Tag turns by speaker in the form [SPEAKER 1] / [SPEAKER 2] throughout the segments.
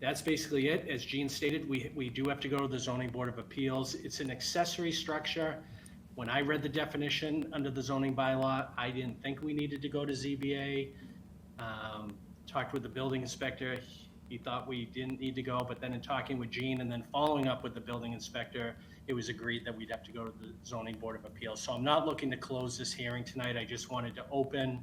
[SPEAKER 1] That's basically it. As Gene stated, we, we do have to go to the zoning board of appeals. It's an accessory structure. When I read the definition under the zoning bylaw, I didn't think we needed to go to ZBA. Um, Talked with the building inspector, he thought we didn't need to go, but then in talking with Gene and then following up with the building inspector, it was agreed that we'd have to go to the zoning board of appeals. So I'm not looking to close this hearing tonight. I just wanted to open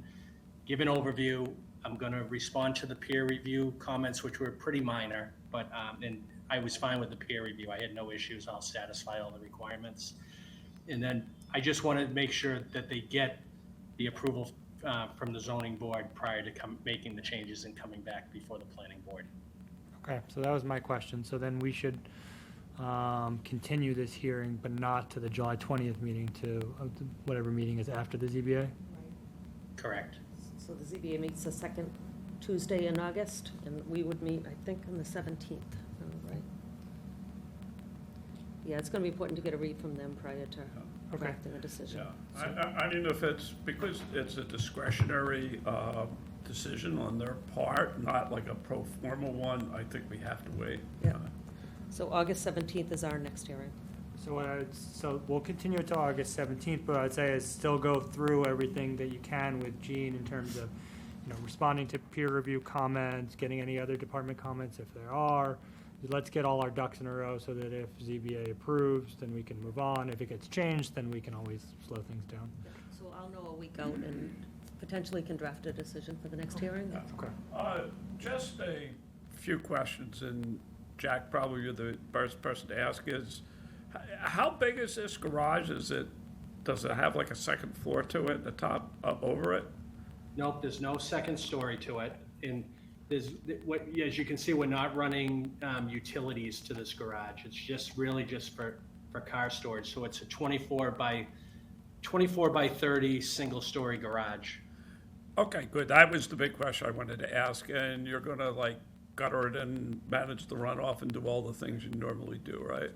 [SPEAKER 1] give an overview. I'm going to respond to the peer review comments, which were pretty minor, but, um, and I was fine with the peer review. I had no issues. I'll satisfy all the requirements. And then I just want to make sure that they get the approval, uh, from the zoning board prior to come, making the changes and coming back before the planning board.
[SPEAKER 2] Okay, so that was my question. So then we should um, continue this hearing, but not to the July 20th meeting to uh, to whatever meeting is after the ZBA?
[SPEAKER 1] Correct?
[SPEAKER 3] So the ZBA meets the second Tuesday in August, and we would meet, I think, on the 17th, Oh, right? Yeah, it's going to be important to get a read from them prior to
[SPEAKER 2] Okay.
[SPEAKER 3] drafting a decision.
[SPEAKER 4] Oh, Yeah, I, I, I don't know if it's, because it's a discretionary, uh, decision on their part, not like a pro forma one, I think we have to wait.
[SPEAKER 3] Yeah. So August 17th is our next hearing.
[SPEAKER 2] So what I, would- so we'll continue it to August 17th, but I'd say is still go through everything that you can with Gene in terms of, you know, responding to peer review comments, getting any other department comments if there are. Let's get all our ducks in a row so that if ZBA approves, then we can move on. If it gets changed, then we can always slow things down.
[SPEAKER 3] So I'll know a week out and potentially can draft a decision for the next hearing.
[SPEAKER 2] Okay.
[SPEAKER 4] Uh, Just a few questions, and Jack, probably you're the first person to ask, is h- how big is this garage? Is it, does it have like a second floor to it, the top up over it?
[SPEAKER 1] Nope, there's no second story to it. And there's, what, as you can see, we're not running um, utilities to this garage. It's just really just for, for car storage. So it's a 24 by, 24 by 30, single-story garage.
[SPEAKER 4] Okay, good. That was the big question I wanted to ask, and you're gonna like gutter it and manage the runoff and do all the things you normally do, right?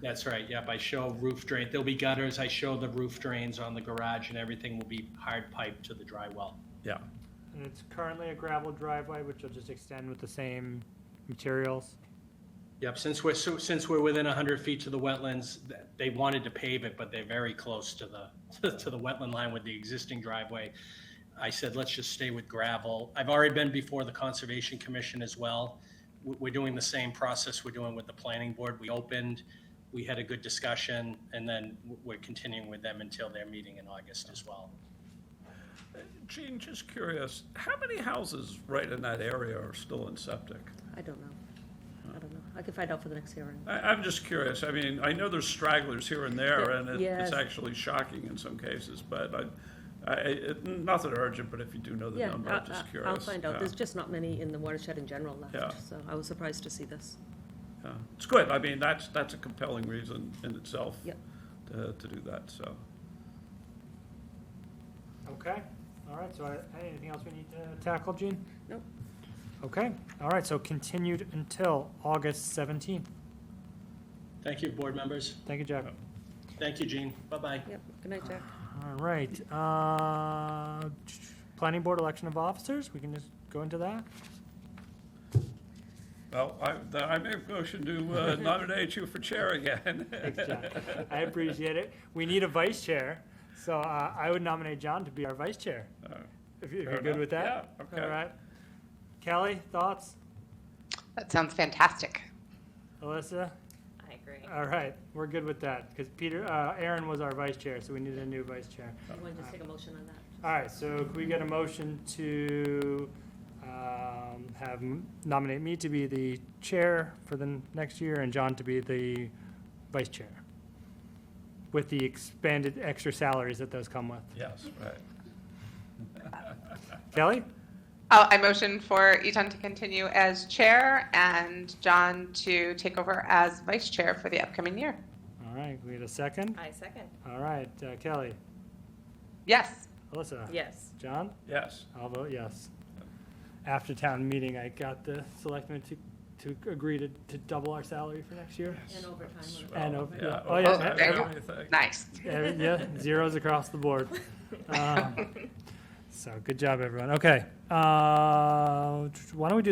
[SPEAKER 1] That's right, yep, I show roof drain, there'll be gutters, I show the roof drains on the garage, and everything will be hard piped to the dry well.
[SPEAKER 4] Yeah.
[SPEAKER 2] And it's currently a gravel driveway, which will just extend with the same materials.
[SPEAKER 1] Yep, since we're, so since we're within 100 feet to the wetlands, th- they wanted to pave it, but they're very close to the, to the wetland line with the existing driveway. I said, let's just stay with gravel. I've already been before the Conservation Commission as well. We- We're doing the same process we're doing with the planning board. We opened, we had a good discussion, and then w- we're continuing with them until their meeting in August as well.
[SPEAKER 4] Gene, just curious, how many houses right in that area are still in septic?
[SPEAKER 3] I don't know. I don't know. I can find out for the next hearing.
[SPEAKER 4] I, I'm just curious. I mean, I know there's stragglers here and there, and it,
[SPEAKER 3] Yes.
[SPEAKER 4] it's actually shocking in some cases, but I, I, it, nothing urgent, but if you do know the
[SPEAKER 3] Yeah,
[SPEAKER 4] number,
[SPEAKER 3] I-
[SPEAKER 4] I'm just
[SPEAKER 3] I-
[SPEAKER 4] curious.
[SPEAKER 3] I'll find out.
[SPEAKER 4] Yeah,
[SPEAKER 3] There's just not many in the watershed in general
[SPEAKER 4] Yeah.
[SPEAKER 3] left, so I was surprised to see this.
[SPEAKER 4] yeah. It's good. I mean, that's, that's a compelling reason in itself
[SPEAKER 3] Yep.
[SPEAKER 4] to, to do that, so.
[SPEAKER 2] Okay, all right, so I- anything else we need to tackle, Gene?
[SPEAKER 3] Nope.
[SPEAKER 2] Okay, all right, so continued until August 17th.
[SPEAKER 1] Thank you, board members.
[SPEAKER 2] Thank you, Jack.
[SPEAKER 1] Thank you, Gene. Bye-bye.
[SPEAKER 3] Yep. Good night, Jack.
[SPEAKER 2] All right, uh, planning board election of officers, we can just go into that?
[SPEAKER 4] Well, I, th- I make a motion to uh, nominate you for chair again.
[SPEAKER 2] Thanks, Jack. I appreciate it. We need a vice chair, so uh, I would nominate John to be our vice chair,
[SPEAKER 4] Uh,
[SPEAKER 2] if you- if
[SPEAKER 4] fair
[SPEAKER 2] you're good
[SPEAKER 4] enough.
[SPEAKER 2] with that?
[SPEAKER 4] Yeah, okay.
[SPEAKER 2] All right. Kelly, thoughts?
[SPEAKER 5] That sounds fantastic.
[SPEAKER 2] Alyssa?
[SPEAKER 5] I agree.
[SPEAKER 2] All right, we're good with that, because Peter, uh, Aaron was our vice chair, so we needed a new vice chair.
[SPEAKER 3] You want to just take a motion on that?
[SPEAKER 2] All right, so can we get a motion to um, have, m- nominate me to be the chair for the n- next year and John to be the vice chair? With the expanded extra salaries that those come with.
[SPEAKER 4] Yes, right.
[SPEAKER 2] Kelly?
[SPEAKER 5] Oh, I motion for Eton to continue as chair and John to take over as vice chair for the upcoming year.
[SPEAKER 2] All right, we get a second?
[SPEAKER 6] I second.
[SPEAKER 2] All right, uh, Kelly,
[SPEAKER 5] Yes.
[SPEAKER 2] Alyssa?
[SPEAKER 6] Yes.
[SPEAKER 2] John?
[SPEAKER 4] Yes.
[SPEAKER 2] I'll vote yes. After town meeting, I got the selectmen to, to agree to, to double our salary for next year.
[SPEAKER 3] And overtime. on it.
[SPEAKER 2] And
[SPEAKER 4] Well,
[SPEAKER 2] over- yeah. Oh, yeah,
[SPEAKER 4] overtime,
[SPEAKER 5] every-
[SPEAKER 4] everything.
[SPEAKER 5] Nice.
[SPEAKER 2] Yeah, yeah, zeros across the board. Um, So, good job, everyone. Okay, uh, why don't we do